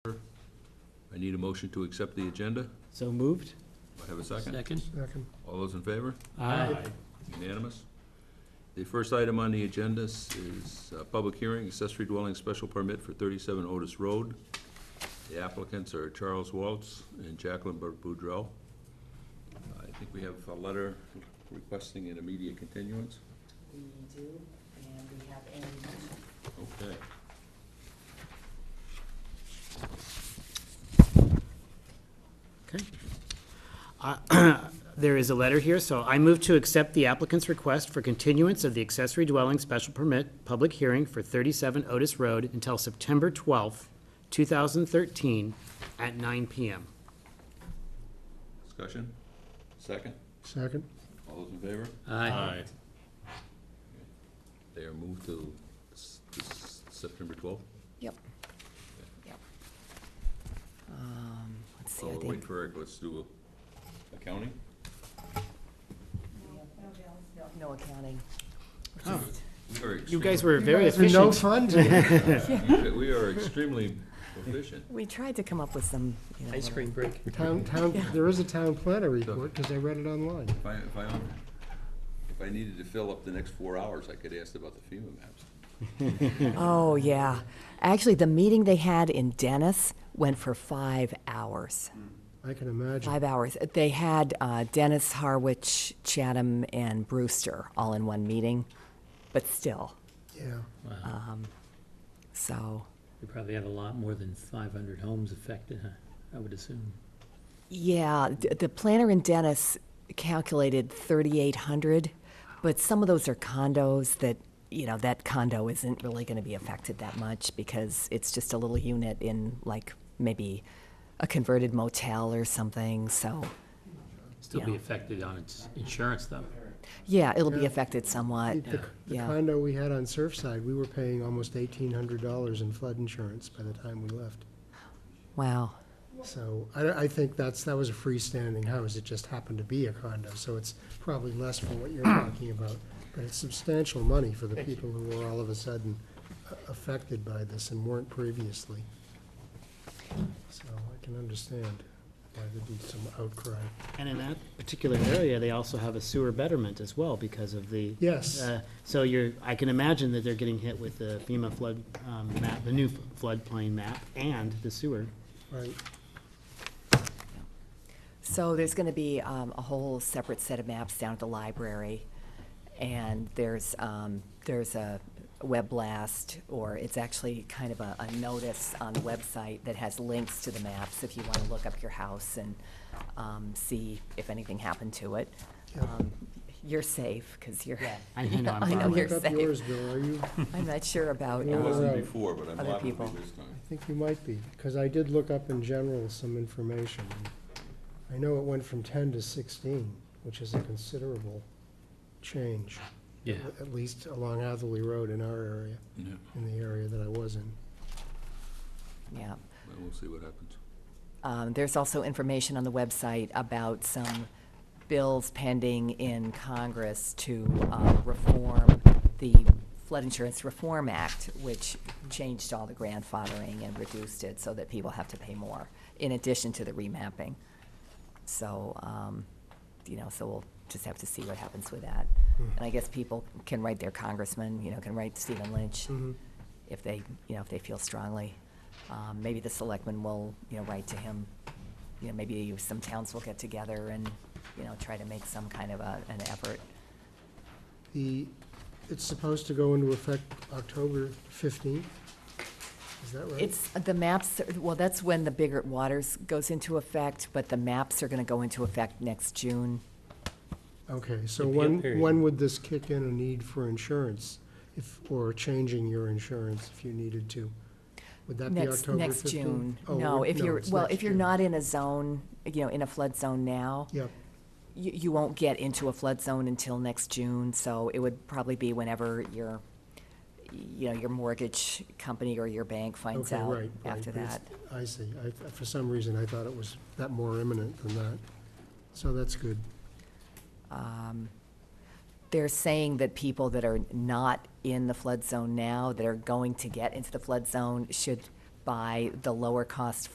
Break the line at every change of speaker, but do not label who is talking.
need a motion to accept the agenda.
So moved?
Do I Have a second?
Second?
Second.
All those in favor?
Aye.
Unanimous? The first item on the agenda is- is a public hearing, accessory dwelling special permit for 37 Otis Road. The applicants are Charles Waltz and Jacqueline Bur- Boudreau. I think we have a letter requesting an immediate continuance.
We do, and we have a motion.
Okay.
Okay. Uh, There is a letter here, so I move to accept the applicant's request for continuance of the accessory dwelling special permit public hearing for 37 Otis Road until September 12th, 2013, at 9 PM.
Discussion? Second?
Second.
All those in favor?
Aye.
They are moved to s- s- September 12th.
Yep. Yep. Um, let's see,
So
Oh,
I
we'll wait
think,
for Eric, let's do accounting.
no accounting.
We are
You guys
extremely-
were very
You guys are No
efficient.
fun today.
We are extremely efficient.
We tried to come up with some, you know.
Ice
little-
cream break.
Town, town, there is a town planner report, because I read it online.
If I, if I, own- if I needed to fill up the next four hours, I could ask about the FEMA maps.
Oh, yeah. Actually, the meeting they had in Dennis went for five hours.
Mm-hmm.
I can imagine.
Five hours. They had uh, Dennis, Harwich, Chatham, and Brewster all in one meeting, but still,
Yeah.
so.
We probably have a lot more than five hundred homes affected, huh? I would assume.
Yeah, d- the planner in Dennis calculated 3,800, but some of those are condos that, you know, that condo isn't really going to be affected that much because it's just a little unit in like maybe a converted motel or something, so,
Still be
Yeah.
affected on its insurance though.
yeah, it'll be
Yeah.
affected somewhat.
The the
Yeah.
condo we had on Surfside, we were paying almost eighteen hundred dollars in flood insurance by the time we left.
Wow.
So I, I think that's, that was a freestanding house, it just happened to be a condo, so it's probably less for what you're talking about. But it's substantial money for the people who were all of a sudden a- affected by this and weren't previously. So I can understand why there'd be some outcry.
And in that particular area, they also have a sewer betterment as well because of the.
Yes.
Uh, So you're, I can imagine that they're getting hit with the FEMA flood um, map, the new floodplain map and the sewer.
Right,
So there's going to be um, a whole separate set of maps down at the library, and there's, um, there's a web blast, or it's actually kind of a, a notice on the website that has links to the maps if you want to look up your house and um, see if anything happened to it.
Yeah.
Um, You're safe, because you're,
I know, I'm
I
far
know
away.
you're
look up yours,
safe.
Bill, are you, I
I'm not sure about,
I
Yeah.
um,
wasn't
Right.
before, but I'm
Other
liable
people.
to be this time.
think you might be, because I did look up in general some information. I know it went from ten to sixteen, which is a considerable change.
Yeah.
at least along Atherley Road in our area,
Yeah,
in the area that I was in.
yeah.
well, we'll see what happens.
Um, There's also information on the website about some bills pending in Congress to uh, reform the Flood Insurance Reform Act, which changed all the grandfathering and reduced it so that people have to pay more, in addition to the remapping. So, um, you know, so we'll just have to see what happens with that. And I guess people can write their congressman, you know, can write Stephen Lynch Mm-hmm. if they, you know, if they feel strongly. Um, Maybe the selectmen will, you know, write to him. You know, maybe some towns will get together and, you know, try to make some kind of a, an effort.
The, it's supposed to go into effect October fifteenth, is that right?
It's, the maps, well, that's when the bigger waters goes into effect, but the maps are gonna go into effect next June.
Okay, so
Appeal
when,
period.
when would this kick in a need for insurance, if, or changing your insurance if you needed to? Would that be
Next,
October
next
fifteenth? Oh,
June. No, if you're, well, if you're not in a zone, you know, in a flood zone now,
Yep,
you, you won't get into a flood zone until next June, so it would probably be whenever your, you know, your mortgage company or your bank finds
okay, right,
out
right.
after
but
that.
it's- I see, I, for some reason, I thought it was that more imminent than that, so that's good.
They're saying that people that are not in the flood zone now, that are going to get into the flood zone, should buy the lower cost